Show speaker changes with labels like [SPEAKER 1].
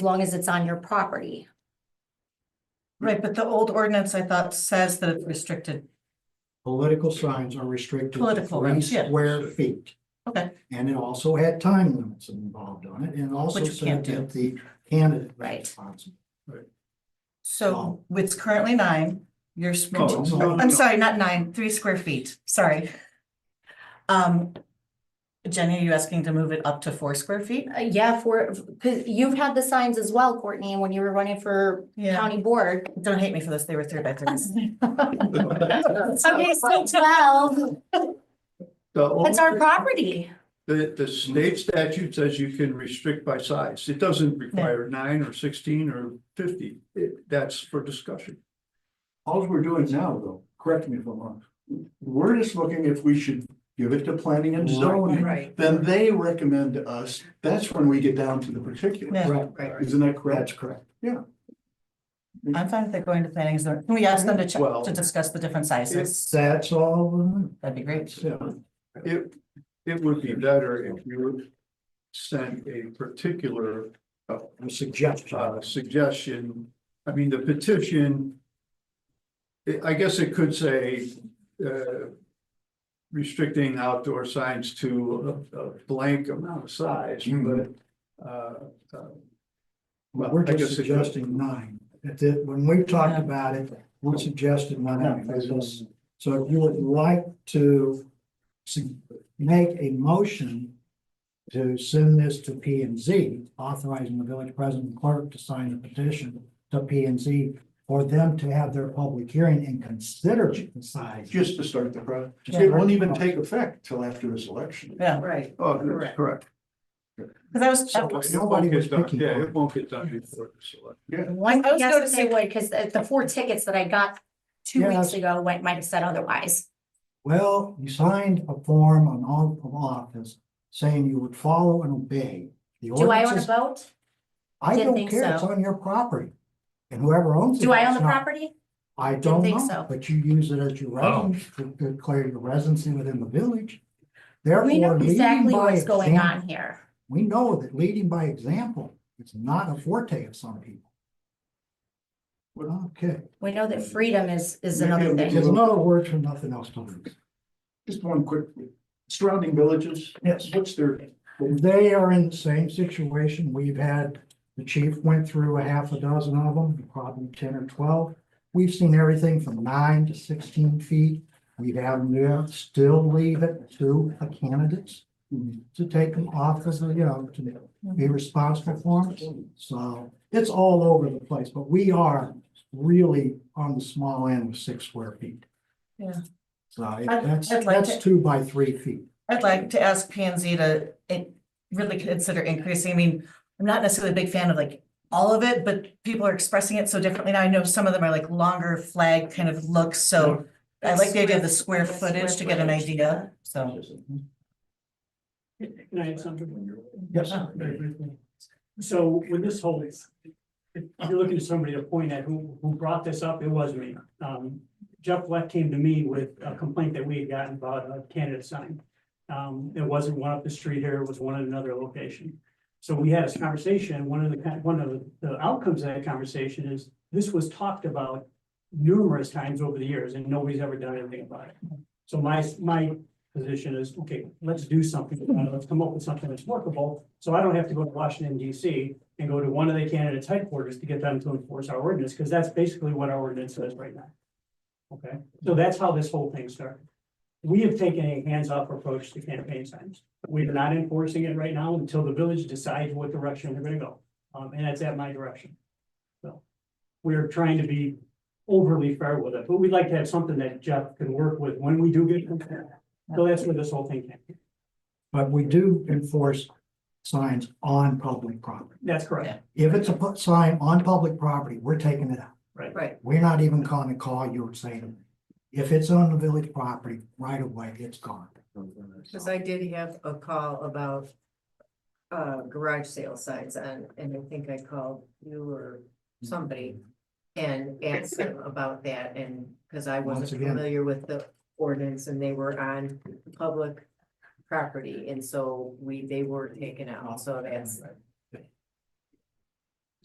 [SPEAKER 1] long as it's on your property.
[SPEAKER 2] Right, but the old ordinance I thought says that it's restricted.
[SPEAKER 3] Political signs are restricted to
[SPEAKER 2] Political
[SPEAKER 3] three
[SPEAKER 2] ones, yeah.
[SPEAKER 3] square feet.
[SPEAKER 2] Okay.
[SPEAKER 3] And it also had time limits involved on it and it also
[SPEAKER 2] Which we
[SPEAKER 3] said
[SPEAKER 2] can't do.
[SPEAKER 3] that the candidate. was
[SPEAKER 1] Right.
[SPEAKER 3] responsible.
[SPEAKER 2] So it's currently nine, you're, s-
[SPEAKER 3] Oh. No, it's not.
[SPEAKER 2] I'm sorry, not nine, three square feet, sorry. Um, Jenny, are you asking to move it up to four square feet?
[SPEAKER 1] Uh, yeah, for, because you've had the signs as well, Courtney, when you were running for
[SPEAKER 2] Yeah,
[SPEAKER 1] county board.
[SPEAKER 2] don't hate me for this, they were three by threes.
[SPEAKER 1] Okay, so twelve,
[SPEAKER 4] The only,
[SPEAKER 1] that's our property.
[SPEAKER 4] the, the state statute says you can restrict by size. It doesn't require nine or sixteen or fifty. It- that's for discussion.
[SPEAKER 5] All we're doing now, though, correct me if I'm wrong, we're just looking if we should give it to planning and zoning.
[SPEAKER 2] Oh, Right.
[SPEAKER 5] Then they recommend to us, that's when we get down to the particulars.
[SPEAKER 2] Yeah,
[SPEAKER 3] Right.
[SPEAKER 2] right.
[SPEAKER 5] Isn't that
[SPEAKER 3] That's
[SPEAKER 5] correct?
[SPEAKER 3] correct.
[SPEAKER 2] I'm fine with it going to planning and zoning. Can we ask them to check,
[SPEAKER 4] Well-
[SPEAKER 2] to discuss the different sizes?
[SPEAKER 3] That's all.
[SPEAKER 2] That'd be great.
[SPEAKER 3] Yeah.
[SPEAKER 4] It, it would be better if you would send a particular
[SPEAKER 3] A suggestion.
[SPEAKER 4] uh, suggestion, I mean, the petition. I- I guess it could say, uh. Restricting outdoor signs to a, a blank amount of size,
[SPEAKER 5] Hmm.
[SPEAKER 4] but, uh.
[SPEAKER 3] Mhm.
[SPEAKER 4] uh,
[SPEAKER 3] But we're
[SPEAKER 4] I guess
[SPEAKER 3] just
[SPEAKER 4] it-
[SPEAKER 3] suggesting nine. If it- when we've talked
[SPEAKER 2] Yeah.
[SPEAKER 3] about it, we suggested nine.
[SPEAKER 5] Yeah, that's-
[SPEAKER 3] So if you would like to su- make a motion to send this to P and Z, authorizing the village president and clerk to sign a petition to P and Z for them to have their public hearing and consider the size.
[SPEAKER 5] Just to start the process.
[SPEAKER 3] Just-
[SPEAKER 5] It won't even take effect till after this election.
[SPEAKER 2] Yeah,
[SPEAKER 6] Right,
[SPEAKER 4] Oh, that's
[SPEAKER 6] Correct.
[SPEAKER 4] correct.
[SPEAKER 2] because I was, I
[SPEAKER 4] So
[SPEAKER 2] was
[SPEAKER 4] it
[SPEAKER 3] Nobody
[SPEAKER 4] won't
[SPEAKER 3] was
[SPEAKER 4] get done,
[SPEAKER 3] picking on
[SPEAKER 4] yeah,
[SPEAKER 3] it.
[SPEAKER 4] it won't get done before the select.
[SPEAKER 1] I was
[SPEAKER 2] yes,
[SPEAKER 1] going to say, wait, because the, the four tickets that I got two weeks
[SPEAKER 3] Yes.
[SPEAKER 1] ago went, might have said otherwise.
[SPEAKER 3] Well, you signed a form on all of office saying you would follow and obey. the
[SPEAKER 1] Do I own a
[SPEAKER 3] ordinances.
[SPEAKER 1] boat?
[SPEAKER 3] I
[SPEAKER 1] Didn't
[SPEAKER 3] don't
[SPEAKER 1] think
[SPEAKER 3] care, it's
[SPEAKER 1] so.
[SPEAKER 3] on your property. And whoever owns it.
[SPEAKER 1] Do I own
[SPEAKER 3] it's
[SPEAKER 1] the
[SPEAKER 3] not-
[SPEAKER 1] property?
[SPEAKER 3] I don't
[SPEAKER 1] think so.
[SPEAKER 3] know, but you use it as your residence, to declare your residency within the village. Therefore,
[SPEAKER 1] We know
[SPEAKER 3] leading
[SPEAKER 1] exactly
[SPEAKER 3] by
[SPEAKER 1] what's going
[SPEAKER 3] example-
[SPEAKER 1] on here.
[SPEAKER 3] We know that leading by example is not a forte of some people. Okay,
[SPEAKER 1] We know that freedom is, is
[SPEAKER 5] Maybe
[SPEAKER 1] another
[SPEAKER 5] I'm
[SPEAKER 3] there's
[SPEAKER 1] thing.
[SPEAKER 3] another word for nothing else to lose.
[SPEAKER 5] Just one quick, surrounding villages,
[SPEAKER 3] Yes.
[SPEAKER 5] what's their,
[SPEAKER 3] They are in the same situation. We've had, the chief went through a half a dozen of them, probably ten or twelve. We've seen everything from nine to sixteen feet. We've had them there, still leave it to the candidates to take them off as, you know, to be responsible for them. So it's all over the place, but we are really on the small end with six square feet.
[SPEAKER 2] Yeah.
[SPEAKER 3] So that's,
[SPEAKER 2] I'd like
[SPEAKER 3] that's
[SPEAKER 2] to-
[SPEAKER 3] two by three feet.
[SPEAKER 2] I'd like to ask P and Z to in- really consider increasing, I mean, I'm not necessarily a big fan of like all of it, but people are expressing it so differently now. I know some of them are like longer flag kind of looks, so I like the idea of the square footage to get an idea, so.
[SPEAKER 7] Can I add something?
[SPEAKER 3] Yes.
[SPEAKER 7] Ah, Very briefly. So when this whole, if you're looking to somebody to point at who, who brought this up, it was me. Um, Jeff Fleck came to me with a complaint that we had gotten about a candidate sign. Um, it wasn't one up the street here, it was one at another location. So we had this conversation, and one of the, kind- one of the outcomes of that conversation is this was talked about numerous times over the years and nobody's ever done anything about it. So my, my position is, okay, let's do something, about it. let's come up with something that's workable. So I don't have to go to Washington DC and go to one of the candidates headquarters to get them to enforce our ordinance, because that's basically what our ordinance says right now. Okay, so that's how this whole thing started. We have taken a hands-off approach to campaign signs. We are not enforcing it right now until the village decides what direction they're gonna go. Um, and that's at my direction. So we're trying to be overly fair with it, but we'd like to have something that Jeff can work with when we do get. So that's where this whole thing came.
[SPEAKER 3] But we do enforce signs on public property.
[SPEAKER 7] That's correct.
[SPEAKER 3] If it's a pu- sign on public property, we're taking it out.
[SPEAKER 7] Right.
[SPEAKER 6] Right.
[SPEAKER 3] We're not even gonna call you and say to them, if it's on the village property, right away, it's gone.
[SPEAKER 6] because I did have a call about uh, garage sale signs and, and I think I called you or somebody and asked them about that and, because I wasn't
[SPEAKER 3] Once again.
[SPEAKER 6] familiar with the ordinance and they were on public property, and so we, they were taken out, so that's